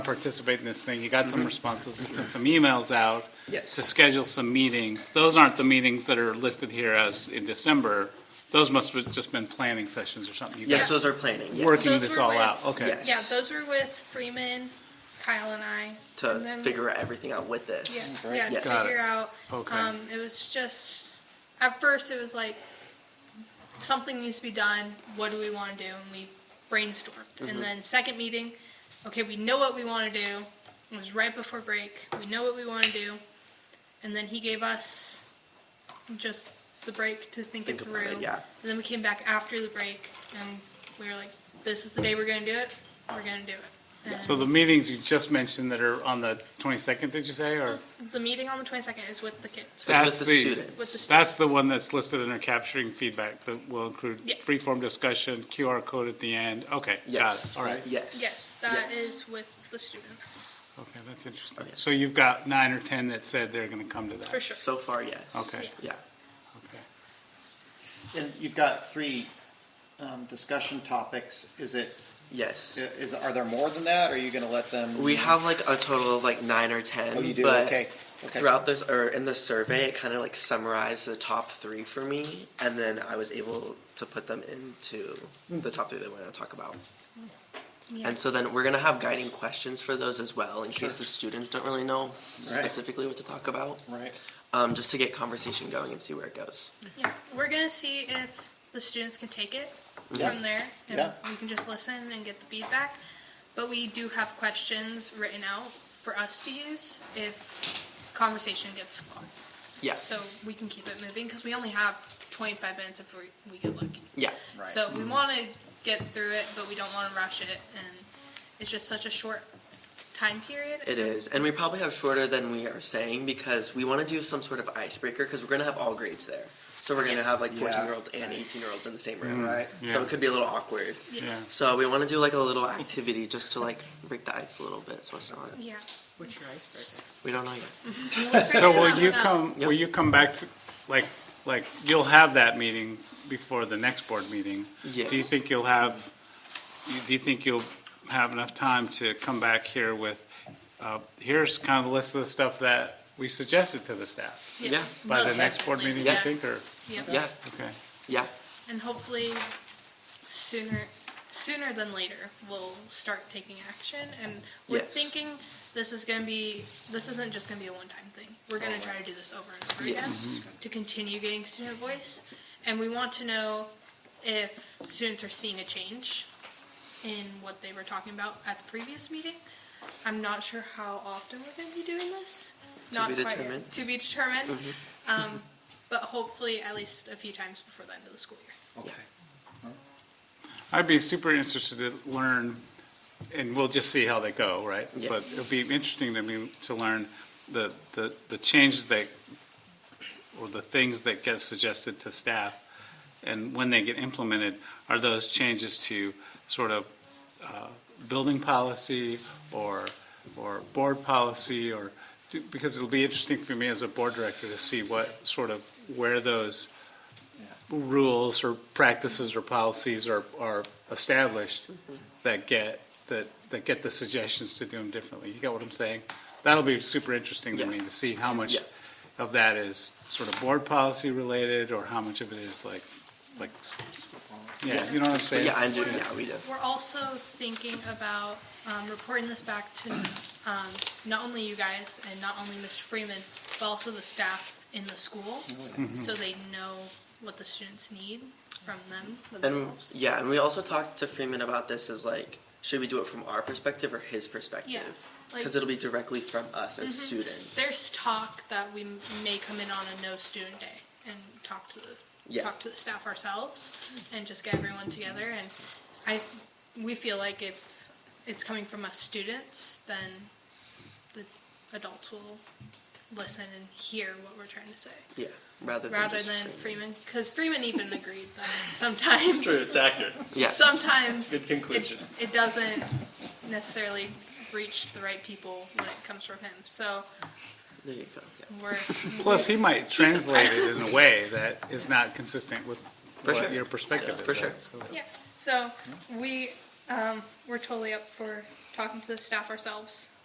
participate in this thing, you got Mm-hmm. some responses, you sent some emails out to Yes. schedule some meetings. Those aren't the meetings that are listed here as in December. Those must have just been planning sessions or something. You Yes, guys those are planning. Yes. Working Those this were all with- out, okay. Yes. Yeah, those were with Freeman, Kyle and I. To and then- figure out everything out with this. Yeah, yeah, to Yes. Got it. figure out. Okay, Um, it was just, at first it was like, something needs to be done, what do we wanna do? And we brainstormed. Mm-hmm. And then second meeting, okay, we know what we wanna do. It was right before break, we know what we wanna do. And then he gave us just the break to think it Think about through. it, yeah. And then we came back after the break and we were like, this is the day we're gonna do it, we're gonna do it. so the meetings you just mentioned that are on the twenty-second, did you say, or? And The meeting on the twenty-second is with the kids. It's That's with the the- With the- students. That's the one that's listed under capturing feedback that will include Yeah. freeform discussion, QR code at the end. Okay, got Yes. it, all right. Yes. Yes, that Yes. is with the students, Okay, that's interesting. Oh, yes. So you've got nine or 10 that said they're going to come to for that. sure. So far, yes. Okay. Yeah. Okay. And you've got three um, discussion topics. Is it, Yes. is, are there more than that? Or are you going to let them? We have like a total of like nine or ten. Oh, you do? But Okay. Okay. throughout this or in the survey, it kind of like summarized the top three for me, and then I was able to put them into the top three that we're going to talk about. Hmm. Yeah. And so then we're going to have guiding questions for those as well, in case Sure. the students don't really know specifically what to talk about, Right. um, just to get conversation going and see where it goes. Yeah, we're gonna see if the students can take it Yeah. from there, and Yeah. we can just listen and get the feedback. But we do have questions written out for us to use if conversation gets caught. Yeah. So we can keep it moving because we only have 25 minutes if we, we get lucky. Yeah. Right. So we want to get through it, but we don't want to rush it, and it's just such a short time period. It is, and we probably have shorter than we are saying because we want to do some sort of icebreaker because we're going to have all grades there. So we're going to have like Yeah. 14 year olds and 18 year olds in the same room. Right. So Yeah. it could be a little awkward. Yeah. So we want to do like a little activity just to like break the ice a little bit. So it's not. Yeah. What's your icebreaker? We don't know yet. So will Figure you that one out. come, will you come back, to- like, like, you'll have that meeting before the next board meeting? Yes. Do you think you'll have, you- do you think you'll have enough time to come back here with, uh, here's kind of the list of the stuff that we suggested to the staff? Yeah. By the most next board definitely, meeting, you yeah. think, or, Yep. Yeah. okay? Yeah. And hopefully sooner sooner than later we'll start taking action and we're Yes. thinking this is going to be this isn't just going to be a one time thing. We're going to try to do this over and over Mm-hmm. Yes. again to continue getting student voice and we want to know if students are seeing a change in what they were talking about at the previous meeting. I'm not sure how often we're going to be doing this. To not be quite yet. determined. Mm-hmm. To be determined. Um, but hopefully at least a few times before the end of the school year. Okay. I'd be super interested to learn, and we'll just see how they go, right? Yeah. But it'll be interesting to me to learn the, the, the changes that, or the things that get suggested to staff, and when they get implemented, are those changes to sort of, uh, building policy or, or board policy or, because it'll be interesting for me as a board director to see what sort of, where those rules or practices or policies are, are established that get, that, that get the suggestions to do them differently. You get what I'm saying? That'll be super interesting to Yeah. me to see how much Yeah. of that is sort of board policy related or how much of it is like, like, s- yeah, you know what I'm saying? Yeah. I do. Yeah. We do. We're also thinking about um, reporting this back to um, not only you guys and not only Mr. Freeman, but also the staff in the school, so they know what the students need from them And themselves. yeah, and we also talked to Freeman about this. Is like, should we do it from our perspective or his perspective? Yeah, like Mm-hmm. Because it'll be directly from us as students. there's talk that we may come in on a no student day and talk to the yeah. talk to the staff ourselves and just get everyone together and I we feel like if it's coming from us students then the adults will listen and hear what we're trying to say yeah. Rather than rather just than Freeman. Freeman because Freeman even agreed that sometimes It's accurate. Yeah. sometimes Good conclusion. It, it doesn't necessarily reach the right people when it comes from him so there you go. Yeah. we're Plus, he might translate it in a way that is not consistent with For what sure. your perspective is. For sure. right? So- Yeah, so we, Um, we're totally up for talking to the staff ourselves.